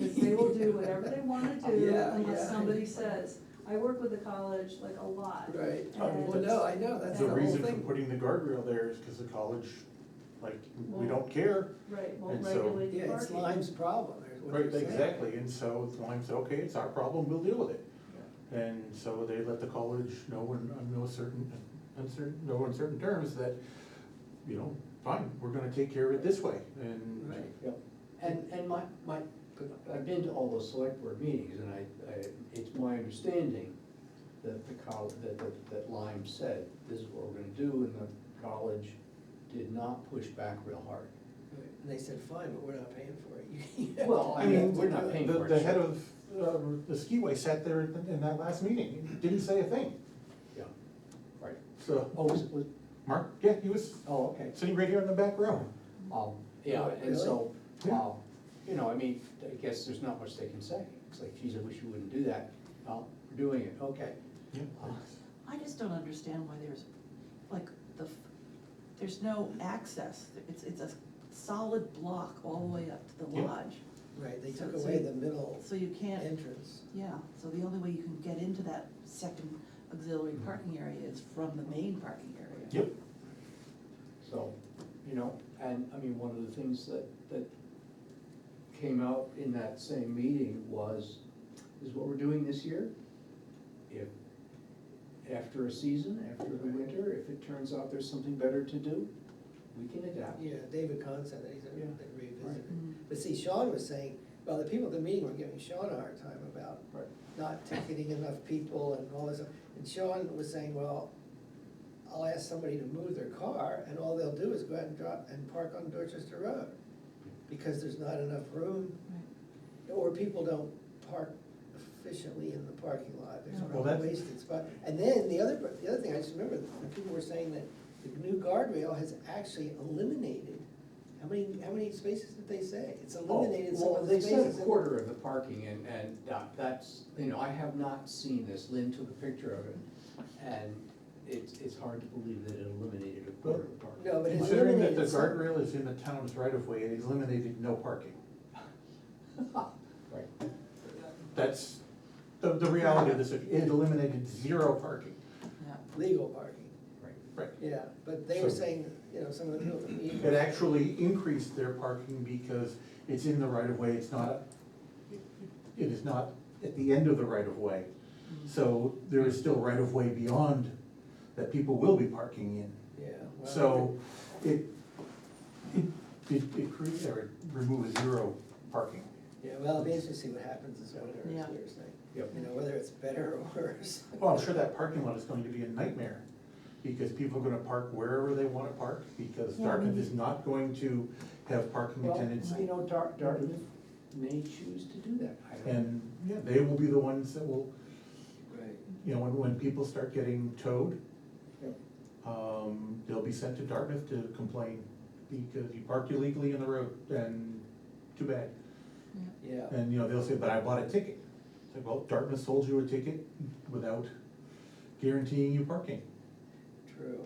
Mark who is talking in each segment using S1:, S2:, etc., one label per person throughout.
S1: will do whatever they wanna do
S2: Yeah,
S1: unless
S2: yeah.
S1: somebody says. I work with the college like a lot.
S2: Right, Oh,
S1: And-
S2: well, no, I know, that's
S3: The
S2: the whole
S3: reason for
S2: thing.
S3: putting the guardrail there is because the college, like, we
S1: Won't.
S3: don't care.
S1: Right, won't
S3: And so-
S1: regulate the
S2: Yeah, it's
S1: parking.
S2: Lime's problem, is what
S3: Right,
S2: you're saying.
S3: exactly, and so it's Lime said, okay, it's our problem, we'll deal with it. And so they let the college know in, on no certain, uncertain, no uncertain terms that, you know, fine, we're gonna take care of it this way, and.
S2: Right.
S4: Yep, and, and my, my, I've been to all the select board meetings, and I, I, it's my understanding that the college, that, that, that Lyme said, this is what we're gonna do, and the college did not push back real hard.
S2: And they said, fine, but we're not paying for it. You-
S4: Well, I
S2: you
S4: mean,
S2: have to
S4: we're
S2: do
S4: not
S2: it.
S4: paying
S3: The-
S4: for it,
S3: The
S4: so-
S3: head of, uh, the skiway sat there in in that last meeting, and didn't say a thing,
S4: Yeah, right.
S3: so,
S4: Oh, was, was,
S3: Mark, yeah, he was
S4: oh, okay.
S3: sitting right here in the back row.
S4: Um, yeah, and so,
S3: Really?
S4: um, you know, I mean, I guess there's not much they can say. It's like, geez, I wish you wouldn't do that. Well, we're doing it, okay.
S3: Yeah.
S5: I just don't understand why there's, like, the, f- there's no access, it's, it's a solid block all the way up to the
S3: Yeah.
S5: lodge.
S2: Right, they
S5: So-
S2: took
S5: so
S2: away
S5: you-
S2: the middle
S5: So you can't,
S2: entrance.
S5: yeah, so the only way you can get into that second auxiliary parking area is from the main parking area.
S3: Mm-hmm. Yep,
S4: So, you know, and I mean, one of the things that, that came out in that same meeting was, is what we're doing this year. If, after a season, after the winter, if it turns out there's something better to do, we can adapt.
S2: Yeah, David Kahn said that, he said,
S4: Yeah.
S2: they revisited
S5: Mm.
S2: it. But see, Sean was saying, well, the people at the meeting were giving Sean a hard time about
S4: Right.
S2: not ticketing enough people and all this. And Sean was saying, well, I'll ask somebody to move their car, and all they'll do is go out and drop and park on Dorchester Road, because there's not enough room,
S5: Right.
S2: or people don't park efficiently in the parking lot, there's
S5: Yeah.
S2: sort
S3: Well,
S2: of a
S3: that's-
S2: wasted spot. And then the other, the other thing, I just remember, the people were saying that the new guardrail has actually eliminated, how many, how many spaces did they say? It's eliminated some
S4: Oh, Well,
S2: of the
S4: they
S2: spaces.
S4: said a
S2: in-
S4: quarter of the parking and, and that- that's, you know, I have not seen this, Lynn took a picture of it. And it's, it's hard to believe that it eliminated a quarter of the parking.
S2: No, but it
S3: considering that the
S2: eliminated some-
S3: guardrail is in the town's right of way, it eliminated no parking.
S4: Right.
S3: That's the, the reality of this, it eliminated zero parking.
S5: Yeah.
S2: Legal parking,
S4: Right.
S3: Right.
S2: yeah, but they were
S3: So-
S2: saying, you know, some of the people at the meeting.
S3: It actually increased their parking because it's in the right of way, it's not, it is not at the end of the right of way.
S2: Mm-hmm.
S3: So there is still right of way beyond that people will be parking in.
S2: Yeah. well,
S3: So it, it, it, it creates, or it removes zero parking.
S2: Yeah, well, it'll be interesting to see what happens this winter, as
S5: Yeah.
S2: you're saying.
S4: Yep.
S2: You know, whether it's better or worse.
S3: Well, I'm sure that parking lot is going to be a nightmare, because people are gonna park wherever they wanna park, because
S5: Yeah, I mean,
S3: Dartmouth is not going to have parking
S4: Well,
S3: attendants.
S4: You know, Dar- Dartmouth may choose to do that. I don't-
S3: And, yeah, they will be the ones that will,
S2: Right.
S3: you know, when, when people start getting towed,
S4: Yep.
S3: um, they'll be sent to Dartmouth to complain, because you parked illegally in the road, and too bad.
S2: Yeah.
S3: And, you know, they'll say, but I bought a ticket. It's like, well, Dartmouth sold you a ticket without guaranteeing you parking.
S2: True,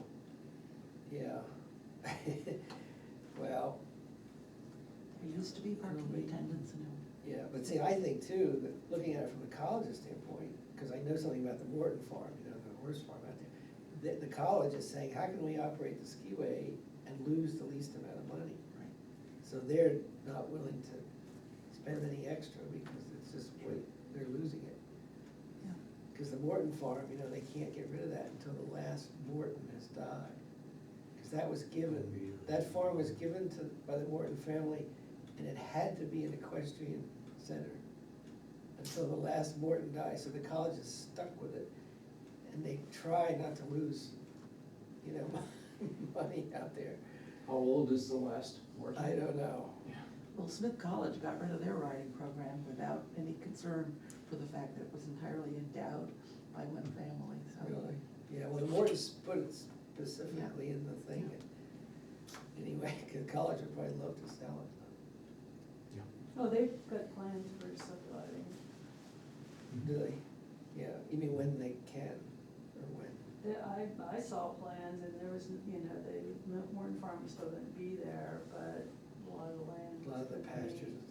S2: yeah. Well,
S5: There used to be parking attendants and everything.
S2: yeah, but see, I think too, that looking at it from the college's standpoint, because I know something about the Morton Farm, you know, the horse farm out there. The, the college is saying, how can we operate the skiway and lose the least amount of money?
S5: Right.
S2: So they're not willing to spend any extra because it's just, way- they're losing it.
S5: Yeah.
S2: Because the Morton farm, you know, they can't get rid of that until the last Morton has died. Because that was given, that farm was given to, by the Morton family, and it had to be an equestrian center until the last Morton died, so the college is stuck with it. And they try not to lose, you know, money out there.
S4: How old is the last horse?
S2: I don't know.
S5: Well, Smith College got rid of their riding program without any concern for the fact that it was entirely endowed by one family, so.
S2: Really? Yeah, well, the Mortons put it specifically in the thing. Anyway, 'cause college would probably love to sell it.
S1: Oh, they've got plans for subdividing.
S2: Do they? Yeah, you mean when they can, or when?
S1: They- I, I saw plans and there was, you know, they, Warren Farm was still gonna be there, but a lot of the land.
S2: A lot of
S1: was
S2: the
S1: gonna be-
S2: pastures and